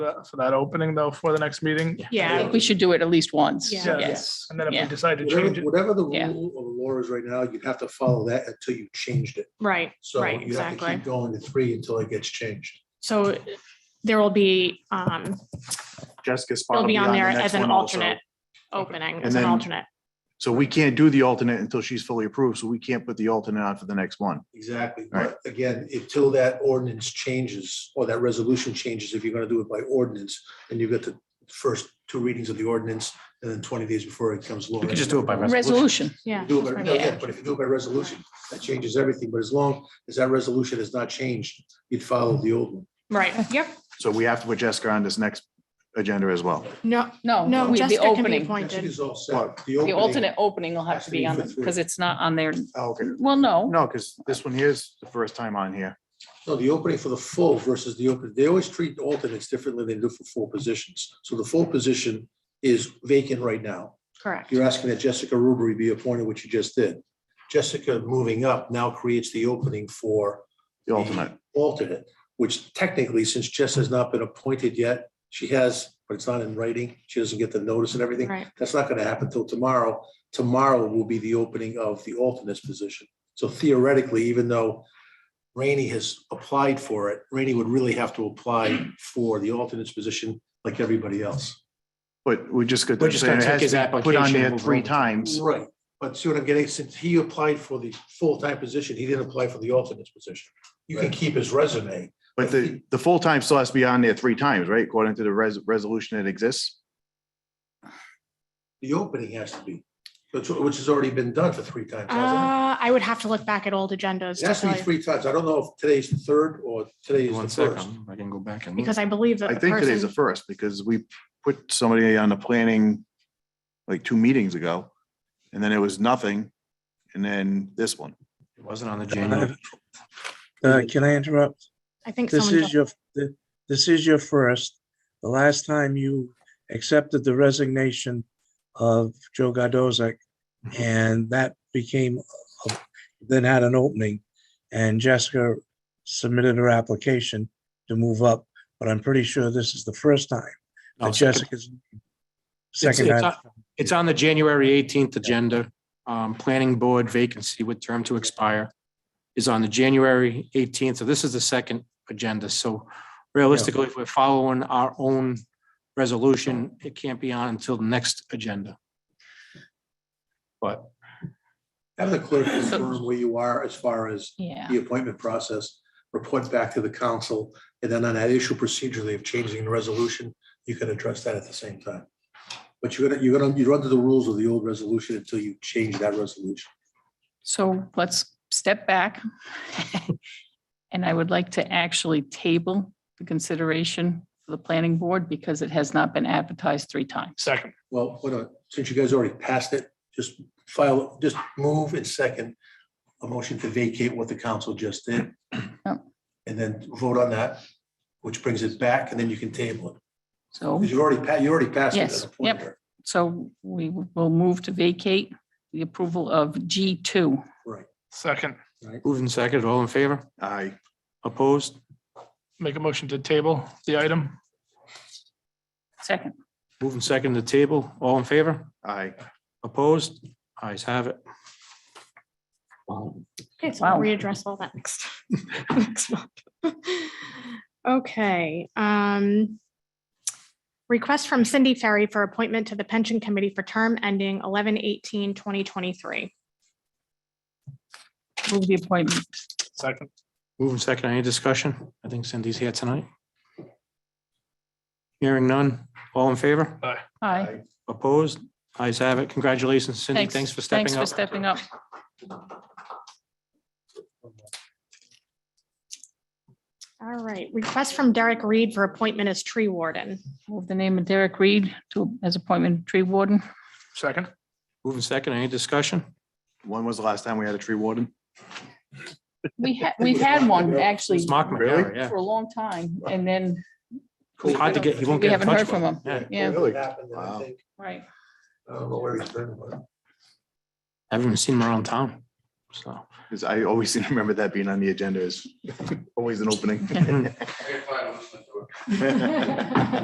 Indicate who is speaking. Speaker 1: that- for that opening though, for the next meeting?
Speaker 2: Yeah, I think we should do it at least once.
Speaker 3: Yeah.
Speaker 2: Yes.
Speaker 1: Yes, and then if we
Speaker 2: Yeah.
Speaker 1: decide to change
Speaker 4: Whatever
Speaker 1: it,
Speaker 4: whatever the
Speaker 2: Yeah.
Speaker 4: rule or law is right now, you'd have to follow that until you changed it.
Speaker 3: Right,
Speaker 4: So
Speaker 3: right,
Speaker 4: you have to
Speaker 3: exactly.
Speaker 4: keep going to three until it gets changed.
Speaker 3: So there will be, um,
Speaker 5: Jessica spot.
Speaker 3: it'll
Speaker 5: will
Speaker 3: be on
Speaker 5: the
Speaker 3: there as
Speaker 5: next
Speaker 3: an
Speaker 5: one also.
Speaker 3: alternate opening,
Speaker 5: And
Speaker 3: as an
Speaker 5: then-
Speaker 3: alternate.
Speaker 5: So we can't do the alternate until she's fully approved, so we can't put the alternate on for the next one.
Speaker 4: Exactly.
Speaker 5: Right.
Speaker 4: But again, until that ordinance changes or that resolution changes, if you're gonna do it by ordinance, then you've got the first two readings of the ordinance and then twenty days before it comes law.
Speaker 6: We could just do it by resolution.
Speaker 2: Resolution.
Speaker 3: Yeah.
Speaker 4: Do it by-
Speaker 3: Yeah.
Speaker 4: yeah, But if you do it by resolution, that changes everything. But as long as that resolution has not changed, you'd follow the old one.
Speaker 3: Right, yep.
Speaker 5: So we have to put Jessica on this next agenda as well.
Speaker 3: No,
Speaker 2: No,
Speaker 3: no,
Speaker 2: we- the
Speaker 3: Jessica can be
Speaker 2: opening,
Speaker 4: It
Speaker 3: appointed.
Speaker 4: is all set.
Speaker 5: Well,
Speaker 2: the
Speaker 4: opening-
Speaker 2: alternate opening will have to be on,
Speaker 4: Has to be for
Speaker 2: because it's not on there.
Speaker 6: Oh,
Speaker 5: Okay.
Speaker 2: Well, no,
Speaker 5: No, because this one here is the first time on here.
Speaker 4: No, the opening for the full versus the open, they always treat alternates differently than they do for full positions. So the full position is vacant right now.
Speaker 3: Correct.
Speaker 4: You're asking that Jessica Rubery be appointed, which you just did. Jessica moving up now creates the opening for
Speaker 5: The alternate.
Speaker 4: the Alternate, which technically, since Jess has not been appointed yet, she has, but it's not in writing. She doesn't get the notice and everything.
Speaker 3: Right,
Speaker 4: That's not gonna happen till tomorrow. Tomorrow will be the opening of the alternate's position. So theoretically, even though Rainey has applied for it, Rainey would really have to apply for the alternate's position like everybody else.
Speaker 5: But we just got.
Speaker 6: We're just gonna take his
Speaker 5: Put on
Speaker 6: application and
Speaker 5: there
Speaker 6: move
Speaker 5: three
Speaker 6: over.
Speaker 5: times.
Speaker 4: Right. But see what I'm getting, since he applied for the full-time position, he didn't apply for the alternate's position. You can keep his resume.
Speaker 5: But the, the full-time still has to be on there three times, right? According to the res- resolution that exists.
Speaker 4: The opening has to be, which, which has already been done for three times. hasn't
Speaker 3: uh, I would have to look back at old agendas
Speaker 4: It It
Speaker 3: to
Speaker 4: has to
Speaker 3: tell
Speaker 4: be
Speaker 3: you,
Speaker 4: three times. I don't know if today's the third or today is
Speaker 6: One
Speaker 4: the first.
Speaker 6: second, I can go back and. look.
Speaker 3: because I believe that
Speaker 5: I
Speaker 3: the
Speaker 5: think today's the
Speaker 3: person,
Speaker 5: first because we put somebody on the planning like two meetings ago. And then it was nothing. And then this one.
Speaker 6: It wasn't on the January.
Speaker 7: Uh, can I interrupt?
Speaker 3: I think
Speaker 7: This
Speaker 3: someone,
Speaker 7: is your, th- this is your first. The last time you accepted the resignation of Joe Gadozic, and that became, a- then had an opening, and Jessica submitted her application to move up, but I'm pretty sure this is the first time
Speaker 6: No,
Speaker 7: that
Speaker 6: second.
Speaker 7: Jessica's
Speaker 6: It's-
Speaker 7: second.
Speaker 6: it's
Speaker 7: time.
Speaker 6: on- Oh, It's on the January eighteenth agenda. Um, planning board vacancy with term to expire is on the January eighteenth. So this is the second agenda. So realistically, if we're following our own resolution, it can't be on until the next agenda. But
Speaker 4: Have the clerk confirm where you are as far as
Speaker 2: yeah.
Speaker 4: the appointment process, report back to the council, and then on that issue procedurally of changing the resolution, you can address that at the same time. But you're gonna, you're gonna, you're under the rules of the old resolution until you change that resolution.
Speaker 2: So let's step back. And I would like to actually table the consideration for the planning board because it has not been advertised three times.
Speaker 1: second,
Speaker 4: Well, what, a- since you guys already passed it, just file, just move and second a motion to vacate what the council just did.
Speaker 2: Yep.
Speaker 4: And then vote on that, which brings it back, and then you can table it.
Speaker 2: So,
Speaker 4: Because you already, pa- you already passed it. at
Speaker 2: Yes,
Speaker 4: a point
Speaker 2: yep.
Speaker 4: there.
Speaker 2: so we will move to vacate the approval of G two.
Speaker 1: second,
Speaker 6: moving second, all in favor?
Speaker 5: I,
Speaker 6: Opposed?
Speaker 1: make a motion to table the item.
Speaker 2: Second,
Speaker 6: Moving second to table, all in favor?
Speaker 5: I,
Speaker 6: Opposed? Ayes have it.
Speaker 3: okay, so we'll
Speaker 2: Wow.
Speaker 3: readdress all that next. next month. Okay, um. Request from Cindy Ferry for appointment to the pension committee for term ending 2023.
Speaker 2: move the appointment.
Speaker 1: Second,
Speaker 6: Moving second, any discussion? I think Cindy's here tonight. Hearing none, all in favor?
Speaker 2: Hi,
Speaker 6: Opposed? Ayes have it. Congratulations, Cindy.
Speaker 2: thanks.
Speaker 6: Thanks for stepping up.
Speaker 2: Thanks for stepping up.
Speaker 3: All right, request from Derek Reed for appointment as tree warden.
Speaker 2: Move the name of Derek Reed to, as appointment tree warden.
Speaker 1: second,
Speaker 6: Moving second, any discussion?
Speaker 5: when was the last time we had a tree warden?
Speaker 2: We had, we've had one actually
Speaker 6: It's Mark
Speaker 5: Really?
Speaker 6: McGarry, yeah.
Speaker 2: for a long time and then
Speaker 6: It's Hard to get, you won't
Speaker 2: we
Speaker 6: get
Speaker 2: haven't
Speaker 6: in
Speaker 2: heard
Speaker 6: touch
Speaker 2: from
Speaker 6: with him.
Speaker 2: him. Yeah.
Speaker 4: What happened, and I
Speaker 5: Wow.
Speaker 4: think-
Speaker 2: Right.
Speaker 4: I don't know where he's been, but.
Speaker 6: Haven't even seen him around town. so.
Speaker 5: Because I always seem to remember that being on the agenda is always an opening.